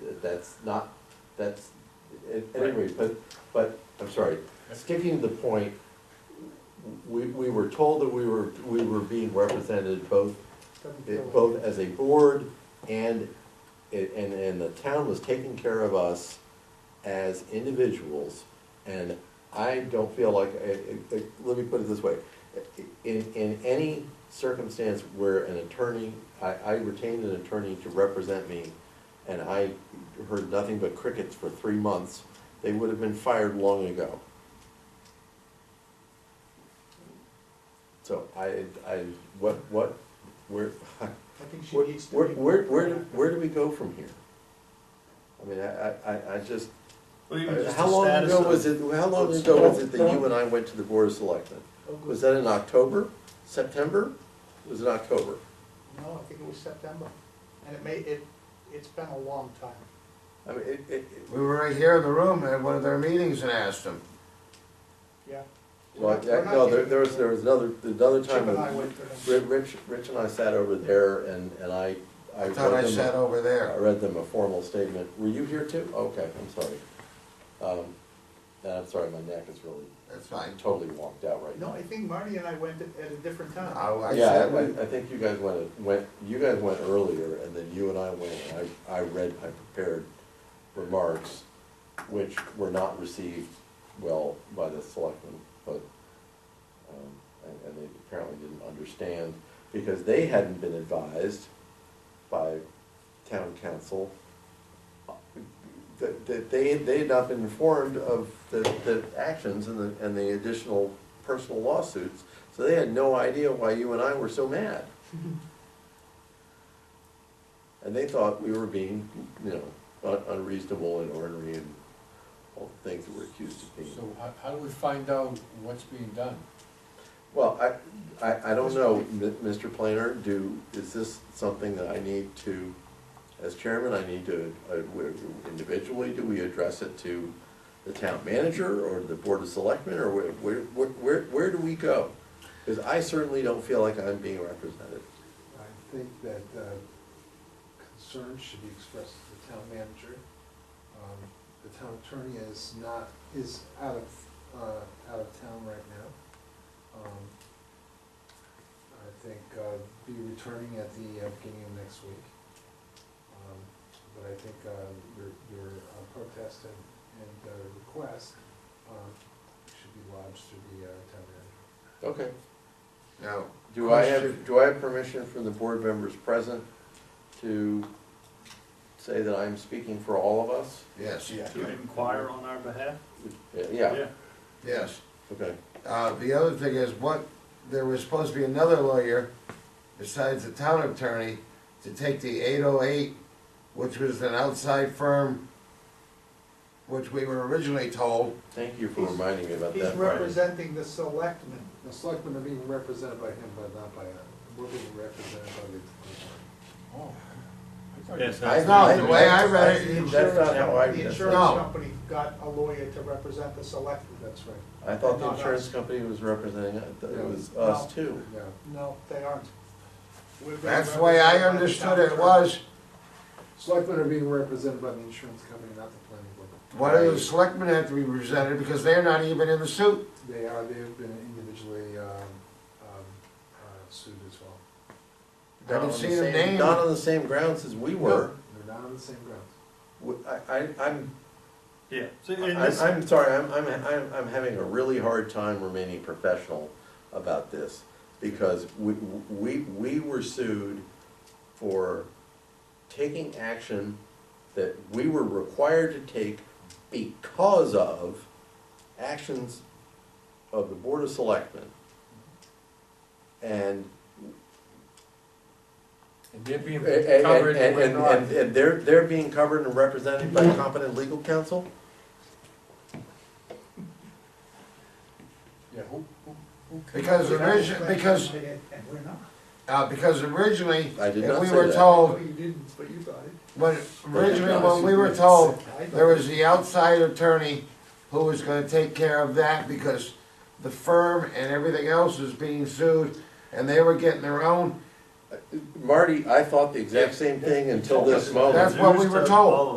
that that's not, that's, at at any rate, but, but, I'm sorry, skipping the point, we, we were told that we were, we were being represented both, eh, both as a board and, eh, and, and the town was taking care of us as individuals. And I don't feel like, I- I- I- let me put it this way, in, in any circumstance where an attorney, I, I retained an attorney to represent me, and I heard nothing but crickets for three months, they would have been fired long ago. So I, I, what, what, where, I think she where, needs to. where, where, where do- where do we go from here? I mean, I, I- I, I just, Well, even just how the long status ago of- was it, how long ago was it that you and I went to the Board of Selectmen? Oh, good. Was that in October, September? Was it October? No, I think it was September, and it may, it, it's been a long time. I mean, it, it, it- We were right here in the room at one of their meetings and asked them. Yeah. well, We're yeah, not- no, we're there, not there was, there was another, another Chip time. and I when went to Ri- them. Rich, Rich and I sat over there and, and I. I thought read I them a- sat over I there. read them a formal statement. Were you here too? Okay, I'm sorry. Um, And I'm sorry, my neck is really, That's fine. I'm totally walked out right No, now. I think Marty and I went at at a different I, time. I Yeah, sat I, with, I- I think you guys went, went, you guys went earlier and then you and I went and I, I read my prepared remarks, which were not received well by the selectmen, but, um, and, and they apparently didn't understand because they hadn't been advised by town council uh, that, that they, they had not been informed of the, the actions and the, and the additional personal lawsuits. So they had no idea why you and I were so mad. And they thought we were being, you know, un- unreasonable and ornery and all the things that we're accused of being. So how, how do we find out what's being done? Well, I, I, I don't know, M- Mr. Planner, do, is this something that I need to, as chairman, I need to, uh, w- individually, do we address it to the town manager or the board of selectmen, or where, where, where- where, where do we go? Because I certainly don't feel like I'm being represented. I think that uh, concerns should be expressed to the town manager. Um, The town attorney is not, is out of, uh, out of town right now. Um, I think uh, be returning at the uh, beginning of next week. Um, But I think uh, your, your uh, protest and, and uh, request um, should be lodged to the uh, town manager. Okay. no. Do I Question. have, do I have permission from the board members present to say that I'm speaking for all of us? Yes, To inquire on our behalf? Yeah, yes. okay. Uh, the other thing is what, there was supposed to be another lawyer besides the town attorney to take the eight oh eight, which was an outside firm, which we were originally told. Thank you for reminding me about He's that. Brian. representing the selectmen. The selectmen are being represented by him, but not by, uh, we're being represented by the Oh, I thought Yes, you- that's- No, the way I read it, The you- That's not how I- insurance- The that's insurance not- company got a lawyer to represent the selectmen. That's right, I thought the Not insurance us. company was representing, it I thought it was No. us too. yeah. No, they aren't. We're being That's the way I represented by the understood town it attorney. was, Selectmen are being represented by the insurance company, not the planning board. one of the selectmen had to be presented because they're not even in the suit. They are, they've been individually, um, um, uh, sued as well. I Not on didn't see the same- name. Not on the same grounds as we were. They're not on the same grounds. W- I, I, I'm, Yeah, so in I'm, this, I'm sorry, I'm, I'm, I'm, I'm having a really hard time remaining professional about this. Because we, we, we were sued for taking action that we were required to take because of actions of the Board of Selectmen. And And they're being And, and, covered and and, we're and- not. and- and they're, they're being covered and represented by competent legal counsel? Yeah, who, who, who? ca- Because originally, because, And we're not. uh, because originally, I did if not we say were that. Oh, told, you didn't, but you thought it. when, originally, not. when we were I told, thought there was the outside attorney who was gonna take care of that because the firm and everything else was being sued, and they were getting their own, Marty, I thought the exact same thing until this moment. That's what we were told. All of